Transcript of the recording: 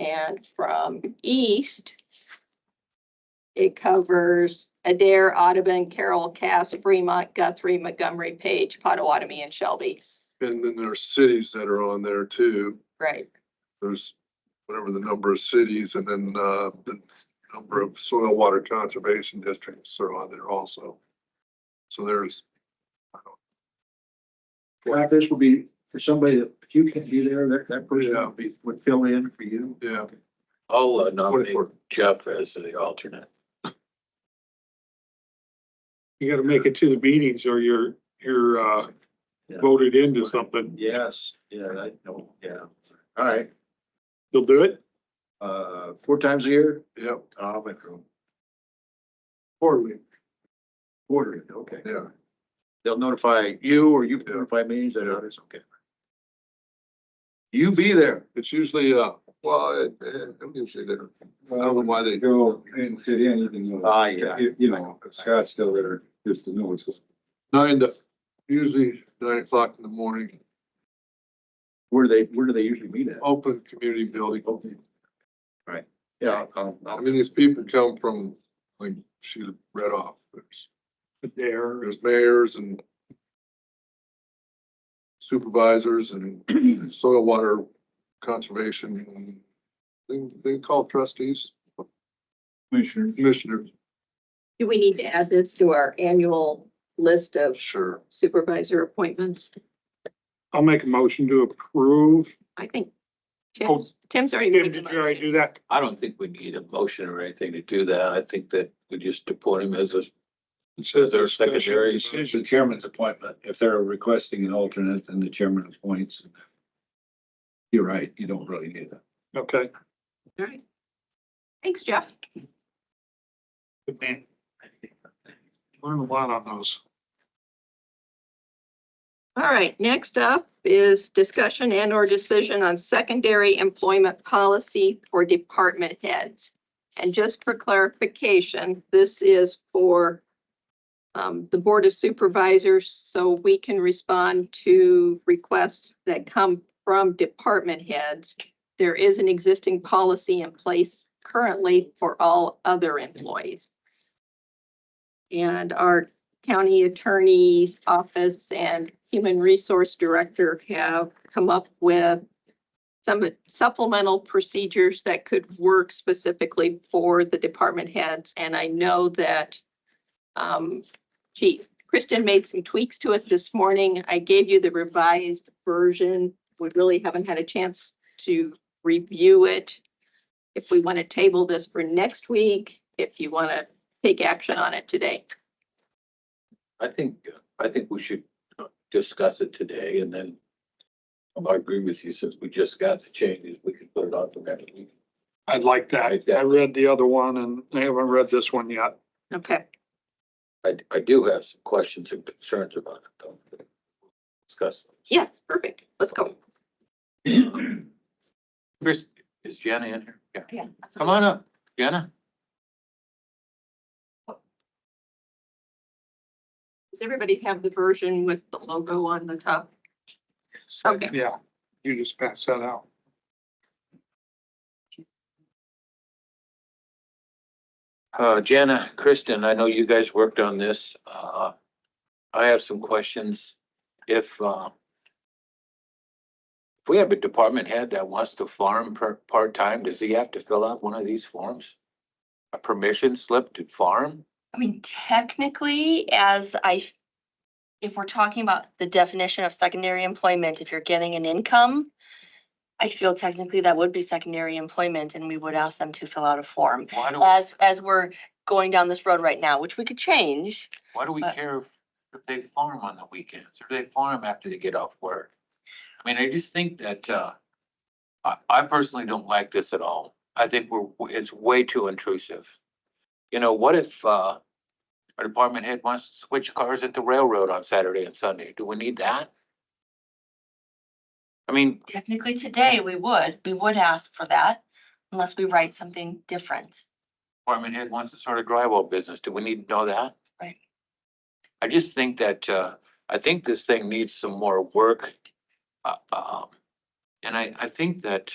And from east, it covers Adair, Audubon, Carroll, Cass, Fremont, Guthrie, Montgomery, Page, Potawatomi, and Shelby. And then there are cities that are on there too. Right. There's whatever the number of cities and then, uh, the number of soil water conservation districts are on there also. So there's, Well, this will be for somebody that if you can be there, that, that person Yeah. would be, would fill in for you. yeah, I'll uh, nominate 24. Jeff as the alternate. You gotta make it to the meetings or you're, you're, uh, Yeah. voted into something. Yes, yeah, I know, yeah. All right, You'll do it? uh, four times a year? yep, I'll make room. Quarterly. Quarterly, okay. yeah. They'll notify you or you notify me, is that how it's okay? You be there. It's usually, uh, well, it, it, I'm usually there. I don't know why they, go and fit in, you can, uh, Ah, yeah. you you know, Scott's still there, just to know what's going nine to, usually nine o'clock in the morning, Where do they, where do they usually meet at? open community building. Yeah, I'll, I I'll, mean, these people come from, like, she read off, there's, There. there's mayors and supervisors and soil water conservation, they, they call trustees, Commissioner, commissioners. Do we need to add this to our annual list of Sure. supervisor appointments? I'll make a motion to approve. I think Oh, Tim's, Tim's already. Tim, made the did you already motion. do that? I don't think we need a motion or anything to do that. I think that we just appoint him as a, as our secondary. the chairman's appointment, if they're requesting an alternate, then the chairman appoints. You're right, you don't really need that. Okay. All right. Thanks, Jeff. Good man. Learn a lot on those. All right, next up is discussion and or decision on secondary employment policy for department heads. And just for clarification, this is for um, the Board of Supervisors, so we can respond to requests that come from department heads. There is an existing policy in place currently for all other employees. And our county attorney's office and human resource director have come up with some supplemental procedures that could work specifically for the department heads. And I know that um, she, Kristen made some tweaks to it this morning. I gave you the revised version. We really haven't had a chance to review it. If we want to table this for next week, if you want to take action on it today. I think, I think we should discuss it today and then I agree with you, since we just got the changes, we could put it on for next week. I like that. Like that. I read the other one and I haven't read this one yet. Okay. I, I do have some questions and concerns about it though. Discuss. Yes, perfect. Let's go. Chris, is Jenna in here? Yeah. Yeah. Come on up, Jenna. Does everybody have the version with the logo on the top? Okay. Yeah, you just pass that out. Uh, Jenna, Kristen, I know you guys worked on this. Uh, I have some questions. If, uh, if we have a department head that wants to farm per, part-time, does he have to fill out one of these forms? A permission slip to farm? I mean, technically, as I, if we're talking about the definition of secondary employment, if you're getting an income, I feel technically that would be secondary employment and we would ask them to fill out a form. Why do, As, as we're going down this road right now, which we could change. why do we but- care if if they farm on the weekends or they farm after they get off work? I mean, I just think that, uh, I, I personally don't like this at all. I think we're, it's way too intrusive. You know, what if, uh, our department head wants to switch cars at the railroad on Saturday and Sunday? Do we need that? I mean, Technically, today, we would, we would ask for that unless we write something different. department head wants to start a drywall business. Do we need to know that? Right. I just think that, uh, I think this thing needs some more work. Uh, um, and I, I think that,